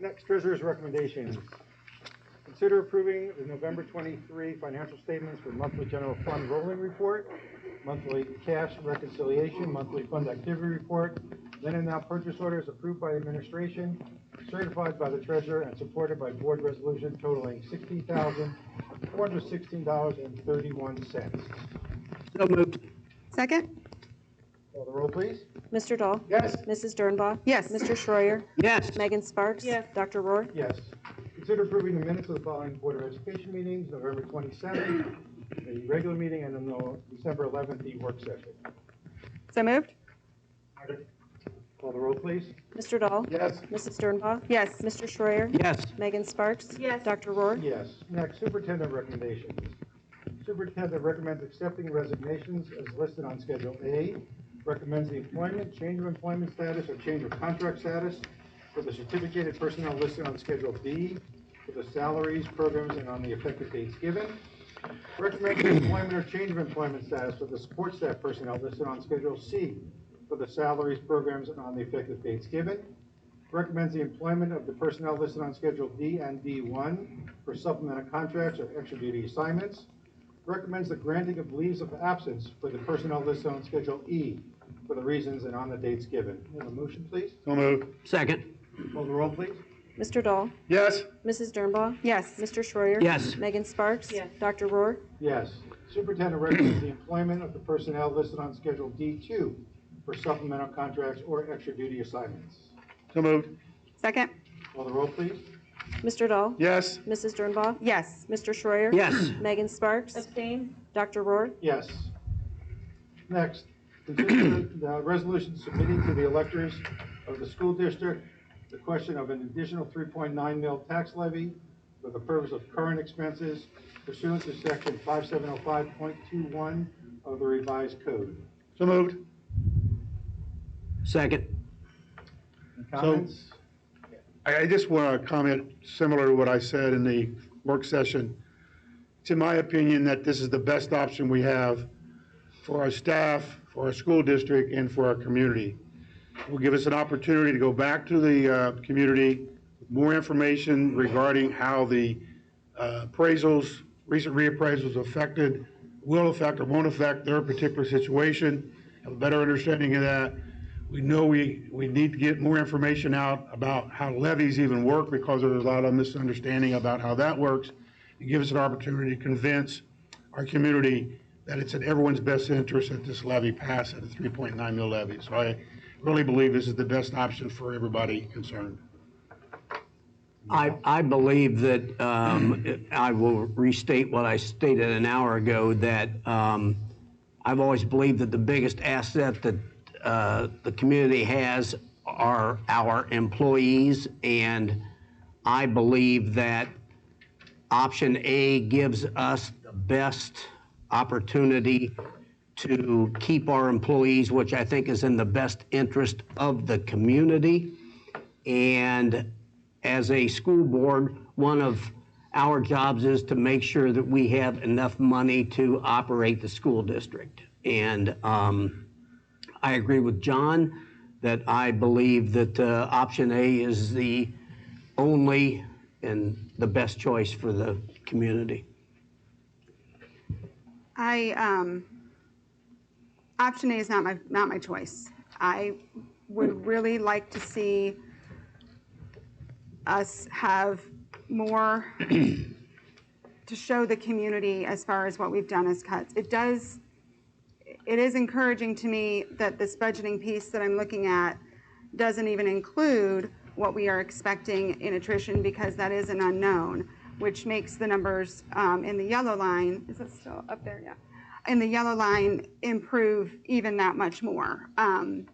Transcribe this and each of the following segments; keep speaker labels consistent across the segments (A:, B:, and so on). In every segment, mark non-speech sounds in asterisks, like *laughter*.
A: Next, treasurer's recommendations. Consider approving the November twenty-three financial statements for monthly general fund rolling report, monthly cash reconciliation, monthly fund activity report, then and now purchase orders approved by the administration, certified by the treasurer and supported by board resolution totaling sixteen thousand, four hundred sixteen dollars and thirty-one cents.
B: So moved.
C: Second?
A: Call the roll, please.
D: Mr. Dahl?
A: Yes.
D: Mrs. Dernbaugh?
C: Yes.
D: Mr. Schreier?
B: Yes.
D: Megan Sparks?
E: Yes.
D: Dr. Rohr?
A: Yes. Consider approving the minutes of the following Board of Education meetings, November twenty-seventh, the regular meeting, and then the December eleventh, the work session.
C: So moved?
A: Call the roll, please.
D: Mr. Dahl?
A: Yes.
D: Mrs. Dernbaugh?
C: Yes.
D: Mr. Schreier?
B: Yes.
D: Megan Sparks?
E: Yes.
D: Dr. Rohr?
A: Yes. Next, superintendent recommendations. Superintendent recommends accepting resignations as listed on Schedule A, recommends the employment, change of employment status, or change of contract status for the certificated personnel listed on Schedule B, for the salaries, programs, and on the effective dates given, recommends the employment or change of employment status for the support staff personnel listed on Schedule C, for the salaries, programs, and on the effective dates given, Recommends the employment of the personnel listed on Schedule D and D1 for supplemental contracts or extra duty assignments. Recommends the granting of leaves of absence for the personnel listed on Schedule E for the reasons and on the dates given. May I Have a motion, please?
B: So moved. Second.
A: Call the roll, please.
D: Mr. Dahl?
B: Yes.
D: Mrs. Dernbaugh?
C: Yes.
D: Mr. Schreier?
B: Yes.
D: Megan Sparks?
E: Yes.
D: Dr. Rohr?
A: Yes. Superintendent recommends the employment of the personnel listed on Schedule D2 for supplemental contracts or extra duty assignments.
B: So moved.
C: Second?
A: Call the roll, please.
D: Mr. Dahl?
B: Yes.
D: Mrs. Dernbaugh?
C: Yes.
D: Mr. Schreier?
B: Yes.
D: Megan Sparks?
E: Abstain?
D: Dr. Rohr?
A: Yes. Next, consider the resolution submitting to the electors of the school district the question of an additional 3.9 mil tax levy for the purpose of current expenses pursuant to section 5705.21 of the revised code.
B: So moved. Second.
A: Any Comments?
F: I, I just want to comment similar to what I said in the work session. It's in my opinion that this is the best option we have for our staff, for our school district, and for our community. It will give us an opportunity to go back to the uh, community, with more information regarding how the uh, appraisals, recent reappraisals affected, will affect or won't affect their particular situation, have a better understanding of that. We know we, we need to get more information out about how levies even work because there's a lot of misunderstanding about how that works. It gives us an opportunity to convince our community that it's in everyone's best interest that this levy pass at a 3.9 mil levy. So I really believe this is the best option for everybody concerned.
B: I, I believe that, um, I will restate what I stated an hour ago, that, um, I've always believed that the biggest asset that, uh, the community has are our employees, and I believe that option A gives us the best opportunity to keep our employees, which I think is in the best interest of the community. And as a school board, one of our jobs is to make sure that we have enough money to operate the school district. And um, I agree with John that I believe that uh, option A is the only and the best choice for the community.
C: I, um, option A is not my, not my choice. I would really like to see us have more *clears throat* to show the community as far as what we've done as cuts. It does, it is encouraging to me that this budgeting piece that I'm looking at doesn't even include what we are expecting in attrition because that is an unknown, which makes the numbers um, in the yellow line, is it still up there? Yeah. In the yellow line improve even that much more. Um,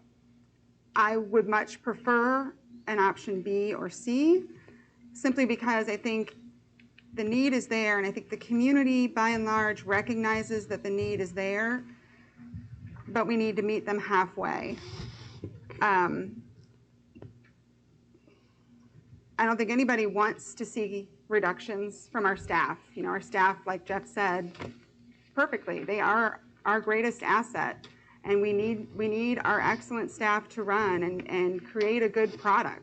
C: I would much prefer an option B or C, simply because I think the need is there, and I think the community, by and large, recognizes that the need is there, but we need to meet them halfway. Um, I don't think anybody wants to see reductions from our staff. You know, our staff, like Jeff said, perfectly. They are our greatest asset, and we need, we need our excellent staff to run and, and create a good product.